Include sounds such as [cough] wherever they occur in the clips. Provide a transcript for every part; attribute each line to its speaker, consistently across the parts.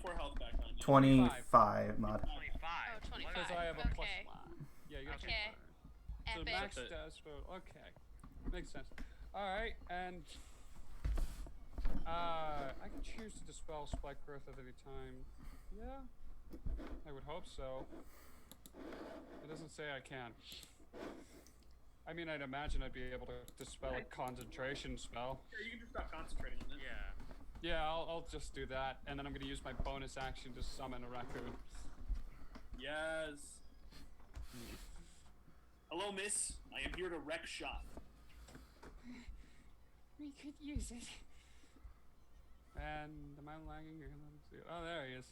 Speaker 1: four health back on you. uh,
Speaker 2: 25 mod.
Speaker 1: [laughs]
Speaker 3: Twenty-five.
Speaker 4: Oh,
Speaker 3: What
Speaker 4: 25.
Speaker 3: did
Speaker 5: I have a plus
Speaker 4: Okay.
Speaker 5: one. Yeah, you got
Speaker 4: Okay.
Speaker 5: two. So
Speaker 4: Epic.
Speaker 5: max dash for okay, makes sense. All right, and uh, I can choose to dispel spike growth at any time. Yeah, I would hope so. It doesn't say I can. I mean, I'd imagine I'd be able to dispel a concentration spell.
Speaker 1: Here, you can just stop concentrating on this.
Speaker 3: Yeah.
Speaker 5: Yeah, I'll, I'll just do that, and then I'm gonna use my bonus action to summon a raccoon.
Speaker 1: Yes. Hello, miss. I am here to wreck shop.
Speaker 5: We could use it. And am I lagging? Or let me see. Oh, there he is.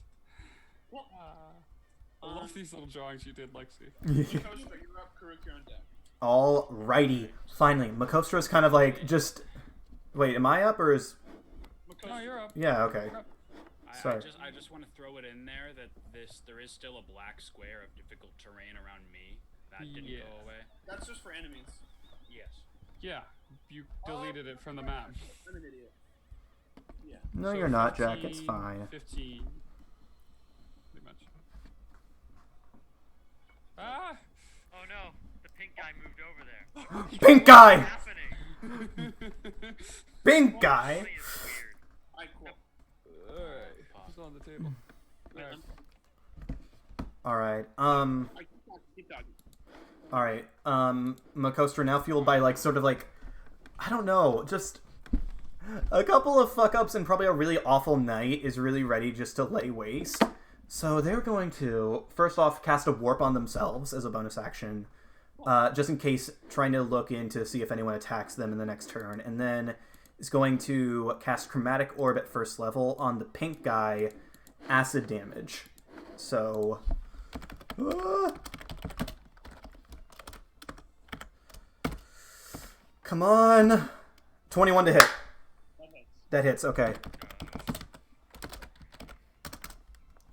Speaker 1: What?
Speaker 5: Uh, I love
Speaker 1: Um,
Speaker 5: these little drawings you did, Lexi.
Speaker 1: Makostra, you're up. Karuk, you're on deck.
Speaker 2: Alrighty. Finally, Makostro's kind of like just. Wait, am I up or is.
Speaker 5: Oh,
Speaker 1: Makostra,
Speaker 5: you're up.
Speaker 2: Yeah, okay.
Speaker 3: I, I
Speaker 2: Sorry.
Speaker 3: just I just want to throw it in there that this there is still a black square of difficult terrain around me that didn't
Speaker 5: Yeah.
Speaker 3: go away.
Speaker 1: that's just for enemies.
Speaker 3: Yes.
Speaker 5: Yeah, you deleted it from the map.
Speaker 1: I'm an idiot. Yeah.
Speaker 2: No,
Speaker 5: So
Speaker 2: you're not, Jack. It's
Speaker 5: 15,
Speaker 2: fine.
Speaker 5: 15. Pretty much. Ah!
Speaker 4: Oh no, the pink guy moved over there. What's
Speaker 2: Pink guy!
Speaker 4: happening?
Speaker 2: Pink guy!
Speaker 4: Really, it's weird.
Speaker 1: Alright, cool.
Speaker 5: Alright, it's on the table. Alright.
Speaker 2: Alright, um.
Speaker 1: I keep talking. Keep talking.
Speaker 2: All right. Um, Makostra now fueled by like sort of like, I don't know, just a couple of fuck ups and probably a really awful night is really ready just to lay waste. So they're going to first off cast a warp on themselves as a bonus action, uh, just in case trying to look in to see if anyone attacks them in the next turn, and then is going to cast chromatic orb at first level on the pink guy, acid damage. So. Ah! Come on. 21 to hit.
Speaker 1: That hits.
Speaker 2: That hits, okay.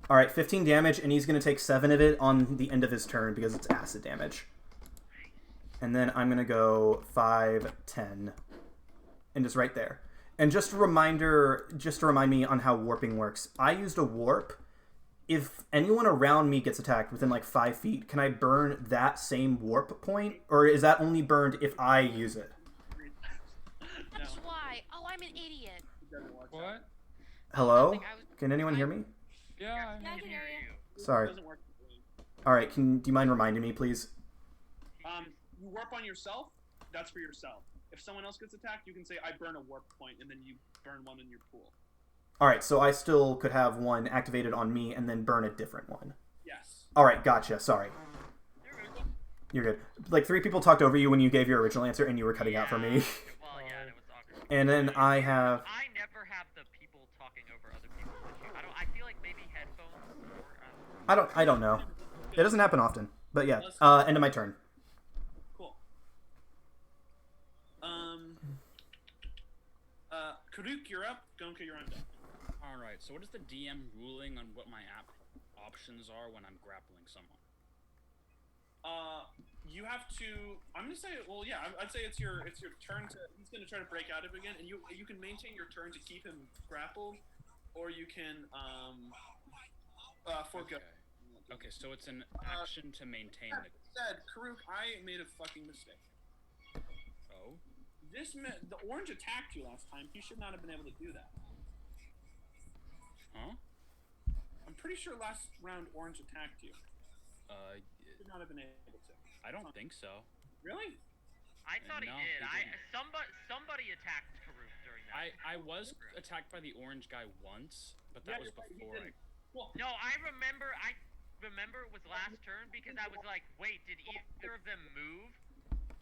Speaker 2: Alright, 15 damage, and he's going to take 7 of it on the end of his turn because it's acid damage. And then I'm going to go 5, 10, and just right there. And just a reminder, just to remind me on how warping works, I used a warp. If anyone around me gets attacked within like 5 feet, can I burn that same warp point? Or is that only burned if I use it?
Speaker 4: That's why. Oh, I'm an idiot.
Speaker 1: It doesn't work.
Speaker 5: What?
Speaker 2: Hello?
Speaker 4: Nothing, I was-
Speaker 2: Can anyone hear me?
Speaker 5: Yeah,
Speaker 4: Yeah, I can hear you.
Speaker 1: It
Speaker 2: Sorry.
Speaker 1: doesn't work.
Speaker 2: All right. Can do you mind reminding me, please?
Speaker 1: Um, you warp on yourself. That's for yourself. If someone else gets attacked, you can say, "I burn a warp point," and then you burn one in your pool.
Speaker 2: All right. So I still could have one activated on me and then burn a different one.
Speaker 1: Yes.
Speaker 2: All right. Gotcha. Sorry. You're good. Like three people talked over you when you gave your original answer, and you were cutting out for me.
Speaker 4: Well, yeah, that was awkward.
Speaker 2: [laughs] and then I have.
Speaker 4: I never have the people talking over other people issue. I don't. I feel like maybe headphones. Or, um,
Speaker 2: I don't. I don't know. It doesn't happen often. But yeah. Uh, end of my turn.
Speaker 1: Cool. Um. Uh, Karuk, you're up. Gonka, you're on deck. Um,
Speaker 3: All right. So what is the DM ruling on what my app options are when I'm grappling someone?
Speaker 1: Uh, you have to. I'm gonna say. Well, yeah. I- I'd say it's your it's your turn to. He's gonna try to break out of it again, and you you can maintain your turn to keep him grappled, or you can um. Uh, forego.
Speaker 3: Okay. Okay. So it's an action to maintain the.
Speaker 1: Said Karuk, I made a fucking mistake.
Speaker 3: Oh.
Speaker 1: This ma- the orange attacked you last time. He should not have been able to do that.
Speaker 3: Huh?
Speaker 1: I'm pretty sure last round orange attacked you.
Speaker 3: Uh,
Speaker 1: Should not have been able to.
Speaker 3: I don't think so.
Speaker 1: Really?
Speaker 4: I thought
Speaker 3: No,
Speaker 4: he did.
Speaker 3: he
Speaker 4: I
Speaker 3: didn't.
Speaker 4: somebody somebody attacked Karuk during that.
Speaker 3: I I was attacked by the orange guy once, but that
Speaker 1: Yeah,
Speaker 3: was
Speaker 1: you're right, you
Speaker 3: before.
Speaker 1: didn't. Well,
Speaker 4: No, I remember. I remember it was last turn because I was like, wait, did either of them move?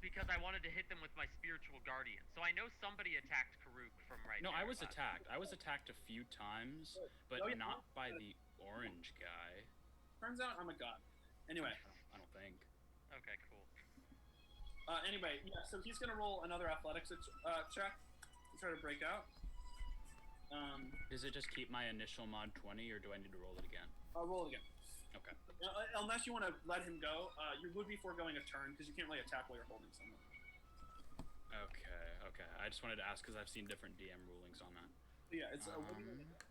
Speaker 4: Because I wanted to hit them with my spiritual guardian. So I know somebody attacked Karuk from
Speaker 3: I,
Speaker 4: right.
Speaker 3: no,
Speaker 4: there
Speaker 3: I was
Speaker 4: last-
Speaker 3: attacked. I was attacked a few times, but
Speaker 1: Oh, yeah.
Speaker 3: not by the orange guy.
Speaker 1: turns out I'm a god. Anyway,
Speaker 3: I don't, I don't think.
Speaker 4: Okay, cool.
Speaker 1: uh, anyway, yeah. So he's gonna roll another athletics uh, check to try to break out. Um,
Speaker 3: Does it just keep my initial mod 20, or do I need to roll it again?
Speaker 1: I'll roll again.
Speaker 3: Okay.
Speaker 1: Uh, unless you want to let him go, uh, you would be foregoing a turn because you can't really attack while you're holding someone.
Speaker 3: Okay, okay. I just wanted to ask because I've seen different DM rulings on that.
Speaker 1: So, yeah, it's. Uh, what do you
Speaker 3: Um,